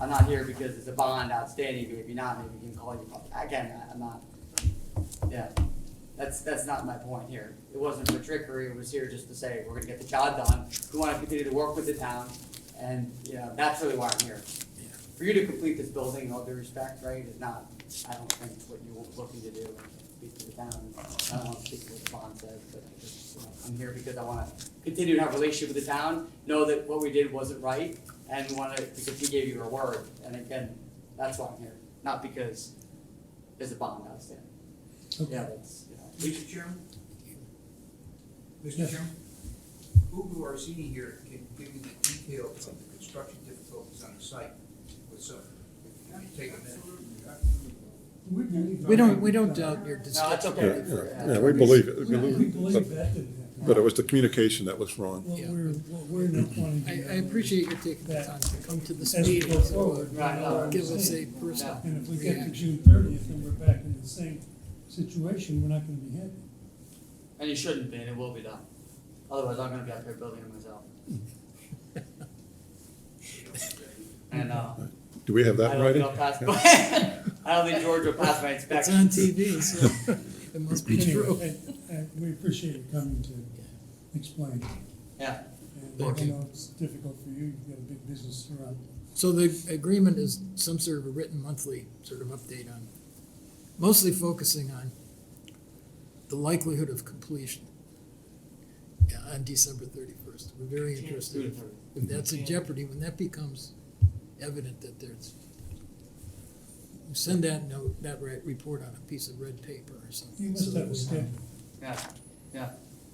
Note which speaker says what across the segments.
Speaker 1: I'm not here because it's a bond outstanding, maybe not, maybe we can call you, up. again, I- I'm not, yeah. That's, that's not my point here. It wasn't for trickery, it was here just to say, we're gonna get the job done, we wanna continue to work with the town, and, you know, that's really why I'm here. For you to complete this building, in all due respect, right, is not, I don't think what you were looking to do, and speak to the town. I don't wanna speak to what the bond says, but I just, you know, I'm here because I wanna continue to have a relationship with the town, know that what we did wasn't right, and wanna, because he gave you your word, and again, that's why I'm here, not because there's a bond outstanding. Yeah, that's, you know.
Speaker 2: Mr. Chairman? Mr.
Speaker 3: Yes.
Speaker 2: Chairman? Who are sitting here can give you the details of the construction difficulties on the site with some, if you could take a minute.
Speaker 3: We don't, we don't doubt your
Speaker 1: No, it's
Speaker 3: discussion.
Speaker 4: Yeah,
Speaker 1: okay.
Speaker 4: yeah, yeah, we believe it. We
Speaker 5: We
Speaker 4: believe
Speaker 5: believe
Speaker 4: it.
Speaker 5: that didn't happen.
Speaker 4: But but it was the communication that was wrong.
Speaker 5: What we're, what we're not wanting
Speaker 3: I,
Speaker 5: to. do
Speaker 3: I appreciate you taking the
Speaker 5: that
Speaker 3: time to come to this
Speaker 5: As we
Speaker 3: meeting,
Speaker 5: go forward.
Speaker 3: so
Speaker 5: we know what I'm
Speaker 3: give us a
Speaker 5: saying.
Speaker 3: personal
Speaker 5: And if we get to
Speaker 3: reaction.
Speaker 5: June thirtieth and we're back in the same situation, we're not gonna be happy.
Speaker 1: And it shouldn't be, and it will be done. Otherwise, I'm gonna be out there building it myself. And, uh,
Speaker 4: Do we have
Speaker 1: I
Speaker 4: that in
Speaker 1: don't think
Speaker 4: writing?
Speaker 1: I'll pass, I don't think George will pass my
Speaker 3: It's
Speaker 1: inspection.
Speaker 3: on TV, so it must be
Speaker 5: Anyway,
Speaker 3: true.
Speaker 5: I- I- We appreciate you coming to explain.
Speaker 1: Yeah,
Speaker 5: And
Speaker 3: Thank
Speaker 5: I
Speaker 3: you.
Speaker 5: know it's difficult for you, you've got a big business to run.
Speaker 3: So the agreement is some sort of a written monthly sort of update on, mostly focusing on the likelihood of completion yeah, on December thirty-first. We're very interested,
Speaker 1: June
Speaker 3: if-
Speaker 1: 30th.
Speaker 3: if that's in jeopardy, when that becomes evident that there's, you send that note, that re- report on a piece of red paper or something.
Speaker 5: You
Speaker 3: so
Speaker 5: must
Speaker 3: that
Speaker 5: have a
Speaker 3: we-
Speaker 5: schedule.
Speaker 1: yeah, yeah.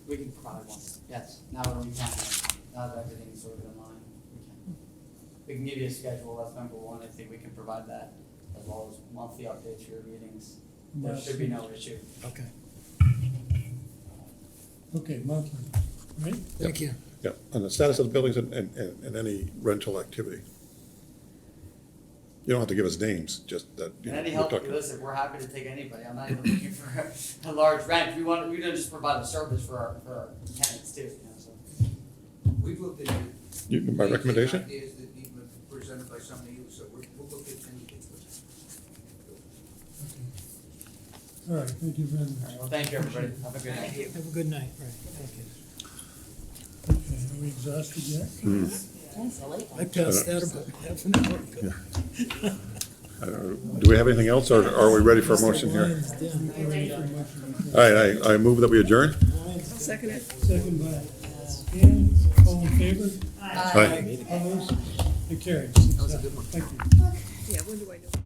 Speaker 1: We can probably one, yes, now that we can, now that everything's sort of in line, we can. We can give you a schedule, that's number one, I think we can provide that, as well as monthly updates for your meetings. There should be no issue.
Speaker 3: Okay,
Speaker 5: Okay, monthly, right?
Speaker 3: thank you.
Speaker 4: Yeah, on the status of the buildings and, and, and and any rental activity. You don't have to give us names, just that,
Speaker 1: And
Speaker 4: you know,
Speaker 1: any
Speaker 4: we're
Speaker 1: help,
Speaker 4: talking.
Speaker 1: listen, we're happy to take anybody, I'm not even looking for a large rent, we want, we don't just provide a service for our, for our tenants too, you know, so.
Speaker 2: We've looked at. it.
Speaker 4: You- My recommendation?
Speaker 2: Ideas that need to be presented by somebody else, so we're, we'll look at anything.
Speaker 5: Okay. All right, thank you very
Speaker 1: All right, well,
Speaker 5: much.
Speaker 1: thank you, everybody, have a good night.
Speaker 3: Have a good night, right, thank you.
Speaker 5: Okay, are we exhausted yet?
Speaker 4: Hmm.
Speaker 3: I passed that about half an hour ago.
Speaker 4: I don't- Do we have anything else, or are we ready for a motion here?
Speaker 3: Lines down.
Speaker 5: We're ready for a motion.
Speaker 4: All right, I, I move that we adjourn.
Speaker 6: Second it.
Speaker 5: Second by Ann, all in favor?
Speaker 4: Aye.
Speaker 5: Opposed? It carries. That was a good one. Thank you.
Speaker 6: Yeah, when do I know?